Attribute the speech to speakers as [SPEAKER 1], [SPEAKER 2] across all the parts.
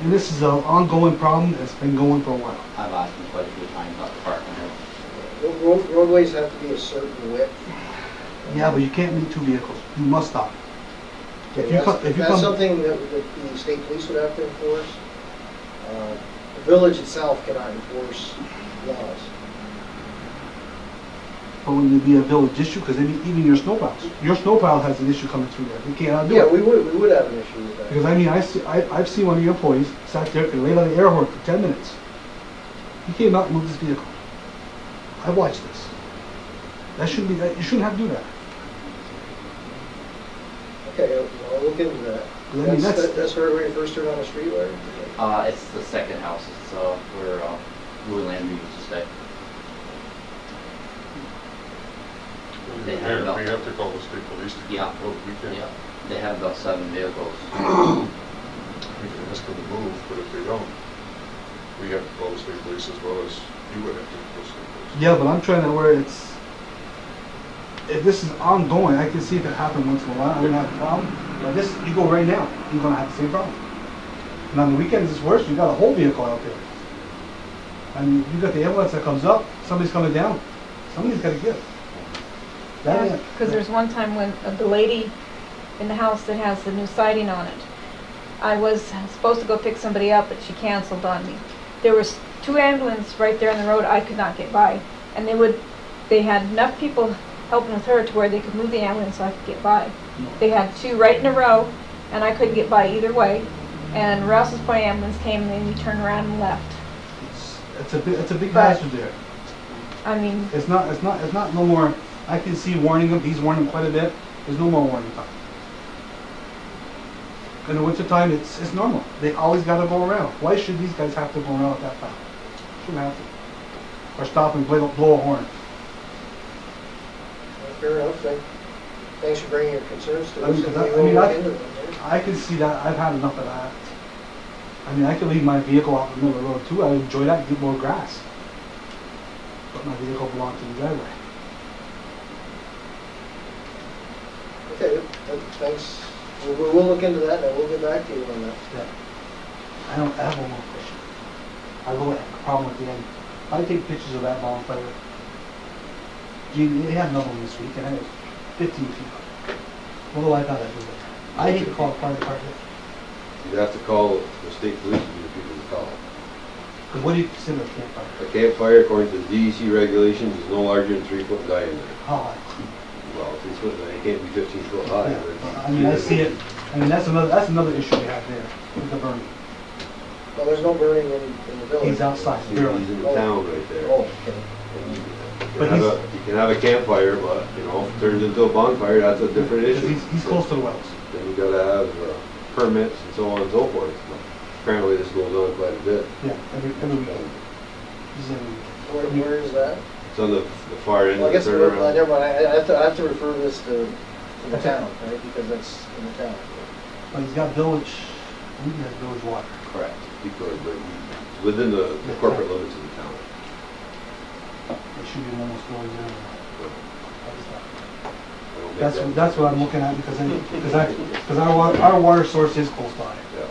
[SPEAKER 1] And this is an ongoing problem that's been going for a while.
[SPEAKER 2] I've asked him quite a few times about the parking.
[SPEAKER 3] Ro- ro- Roadways have to be a certain width.
[SPEAKER 1] Yeah, but you can't meet two vehicles. You must stop. If you
[SPEAKER 3] That's-
[SPEAKER 1] come, if you
[SPEAKER 3] That's
[SPEAKER 1] come,
[SPEAKER 3] something that that the state police would have to enforce. Uh, The village itself cannot enforce laws.
[SPEAKER 1] but when it be a uh, village issue, because even your snowplows, your snowplow has an issue coming through there. You can't do
[SPEAKER 3] Yeah,
[SPEAKER 1] it.
[SPEAKER 3] we would, we would have an issue with that.
[SPEAKER 1] Because I mean, I see, I, I've seen one of your employees sat there and laid on the air horn for ten minutes. He came out and moved his vehicle. I watched this. That shouldn't be, that- you shouldn't have to do that.
[SPEAKER 3] Okay, I'll- I'll look into that.
[SPEAKER 1] I mean,
[SPEAKER 3] That's,
[SPEAKER 1] that's-
[SPEAKER 3] that- that's where we first turn on the street light?
[SPEAKER 2] Uh, it's the second house, it's, uh, where, uh, Louis Landry used to stay.
[SPEAKER 4] We
[SPEAKER 2] They have
[SPEAKER 4] have,
[SPEAKER 2] about-
[SPEAKER 4] we have to call the state police. to-
[SPEAKER 2] Yeah.
[SPEAKER 4] Well, we can,
[SPEAKER 2] Yeah, they have about seven vehicles.
[SPEAKER 4] we can ask them to move, but if they don't, we have to call the state police as well as you would have to call the state police.
[SPEAKER 1] Yeah, but I'm trying to where it's, if this is ongoing, I can see if it happened once in a while, I wouldn't have a problem. But this, you go right now, you're gonna have the same problem. And on the weekends, it's worse, you got a whole vehicle out there. I mean, you got the ambulance that comes up, somebody's coming down, somebody's gotta give. That ain't-
[SPEAKER 5] Because there's one time when uh, the lady in the house that has the new siding on it, I was supposed to go pick somebody up, but she canceled on me. There was two ambulances right there on the road, I could not get by. And they would, they had enough people helping with her to where they could move the ambulance so I could get by. They had two right in a row, and I couldn't get by either way. And Rouse's Point ambulance came, and then we turned around and left.
[SPEAKER 1] It's, it's a, bi- it's a big
[SPEAKER 5] Right.
[SPEAKER 1] hazard there.
[SPEAKER 5] I mean,
[SPEAKER 1] It's not, it's not, it's not no more, I can see warning him, he's warning him quite a bit, there's no more warning time. In the wintertime, it's, it's normal, they always gotta go around, why should these guys have to go around at that time? Shouldn't have to. Or stop and blow, blow a horn.
[SPEAKER 3] Fair enough, thank, thanks for bringing your concerns to
[SPEAKER 1] I mean,
[SPEAKER 3] us. and
[SPEAKER 1] that-
[SPEAKER 3] we
[SPEAKER 1] I
[SPEAKER 3] will
[SPEAKER 1] mean,
[SPEAKER 3] look
[SPEAKER 1] that-
[SPEAKER 3] into them.
[SPEAKER 1] I can see that, I've had enough of that. I mean, I could leave my vehicle out in the middle of the road too, I enjoy that, get more grass. But my vehicle belongs to the driveway.
[SPEAKER 3] Okay, th- thanks, we'll, we'll we'll look into that, and we'll get back to you on that.
[SPEAKER 1] Yeah. I don't have one more question. I really have a problem with the end. I take pictures of that bonfire. Gee, they had another one this week and I was fifteen feet. What do I thought I was I hate to call a fire department,
[SPEAKER 6] You'd have to call the state police to be the people to call.
[SPEAKER 1] because what do you consider a campfire?
[SPEAKER 6] A campfire, according to the DEC regulations, is no larger than three foot diameter.
[SPEAKER 1] How high?
[SPEAKER 6] Well, three foot, it can't be fifteen foot high.
[SPEAKER 1] Yeah,
[SPEAKER 6] but-
[SPEAKER 1] I mean, I see it, I mean, that's another, that's another issue we have there with the burning.
[SPEAKER 3] Well, there's no burning in, in the village.
[SPEAKER 1] He's outside,
[SPEAKER 6] He's
[SPEAKER 1] barely.
[SPEAKER 6] in the town right there.
[SPEAKER 3] Oh, okay.
[SPEAKER 6] And you
[SPEAKER 1] But
[SPEAKER 6] can have
[SPEAKER 1] he's-
[SPEAKER 6] a- You can have a campfire, but, you know, if it turns into a bonfire, that's a different
[SPEAKER 1] Because
[SPEAKER 6] issue.
[SPEAKER 1] He's, he's close to the wells.
[SPEAKER 6] Then you gotta have uh, permits and so on and so forth. But Apparently this goes on quite a bit.
[SPEAKER 1] Yeah, every, every weekend. He's every weekend.
[SPEAKER 3] Where, where is that?
[SPEAKER 6] It's on the the far end
[SPEAKER 3] Well, I
[SPEAKER 6] of the
[SPEAKER 3] guess, we're- well,
[SPEAKER 6] turnaround.
[SPEAKER 3] never mind, I I have to, I have to refer this to, to the town, right, because that's in the town.
[SPEAKER 1] But he's got village, I think he has village water.
[SPEAKER 6] Correct. Because, but it's within the the corporate limits of the town.
[SPEAKER 1] It should be almost going down.
[SPEAKER 6] I don't think
[SPEAKER 1] That's,
[SPEAKER 6] that-
[SPEAKER 1] that's what I'm looking at because I, because I, because our water, our water source is close by.
[SPEAKER 6] Yeah.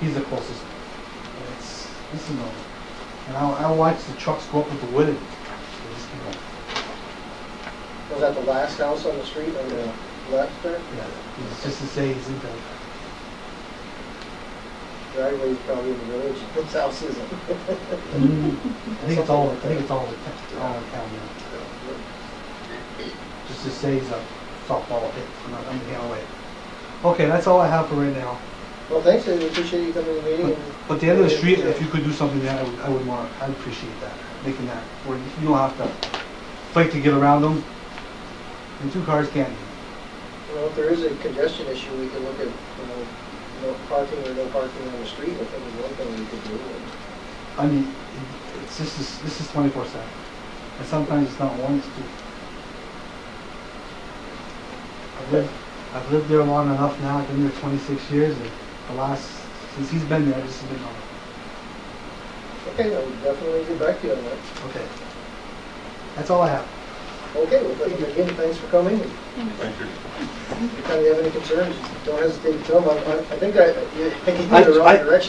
[SPEAKER 1] He's the closest. And It's, this is normal. And I, I watch the trucks go up with the wood and they just keep going.
[SPEAKER 3] Was that the last house on the street on the left there?
[SPEAKER 1] Yeah, it's just to say he's in there.
[SPEAKER 3] Driveway's probably in the village, this house isn't.
[SPEAKER 1] I think it's all, I think it's all, the- all the county. Just to say he's a softball hit, I'm not, I'm getting away. Okay, that's all I have for right now.
[SPEAKER 3] Well, thanks, and we appreciate you coming to the meeting.
[SPEAKER 1] But
[SPEAKER 3] and-
[SPEAKER 1] but the end of the street, if you could do something there, I would, I would want, I'd appreciate that, making that, where you you don't have to fight to get around them. And two cars can't.
[SPEAKER 3] You know, if there is a congestion issue, we can look at, you know, no parking or no parking on the street, I think is one thing we could do. and-
[SPEAKER 1] I mean, it- it's just, this- this is twenty-four seven. And sometimes it's not one, it's two. I've lived, I've lived there long enough now, I've been there twenty-six years, and the last, since he's been there, this has been on.
[SPEAKER 3] Okay, I would definitely get back to you on that.
[SPEAKER 1] Okay. That's all I have.
[SPEAKER 3] Okay, well, thank you again, thanks for coming.
[SPEAKER 4] Thank you.
[SPEAKER 3] If you have any concerns, don't hesitate to tell them. I I- I think I, I gave
[SPEAKER 1] I-
[SPEAKER 3] you the wrong
[SPEAKER 1] I-
[SPEAKER 3] direction.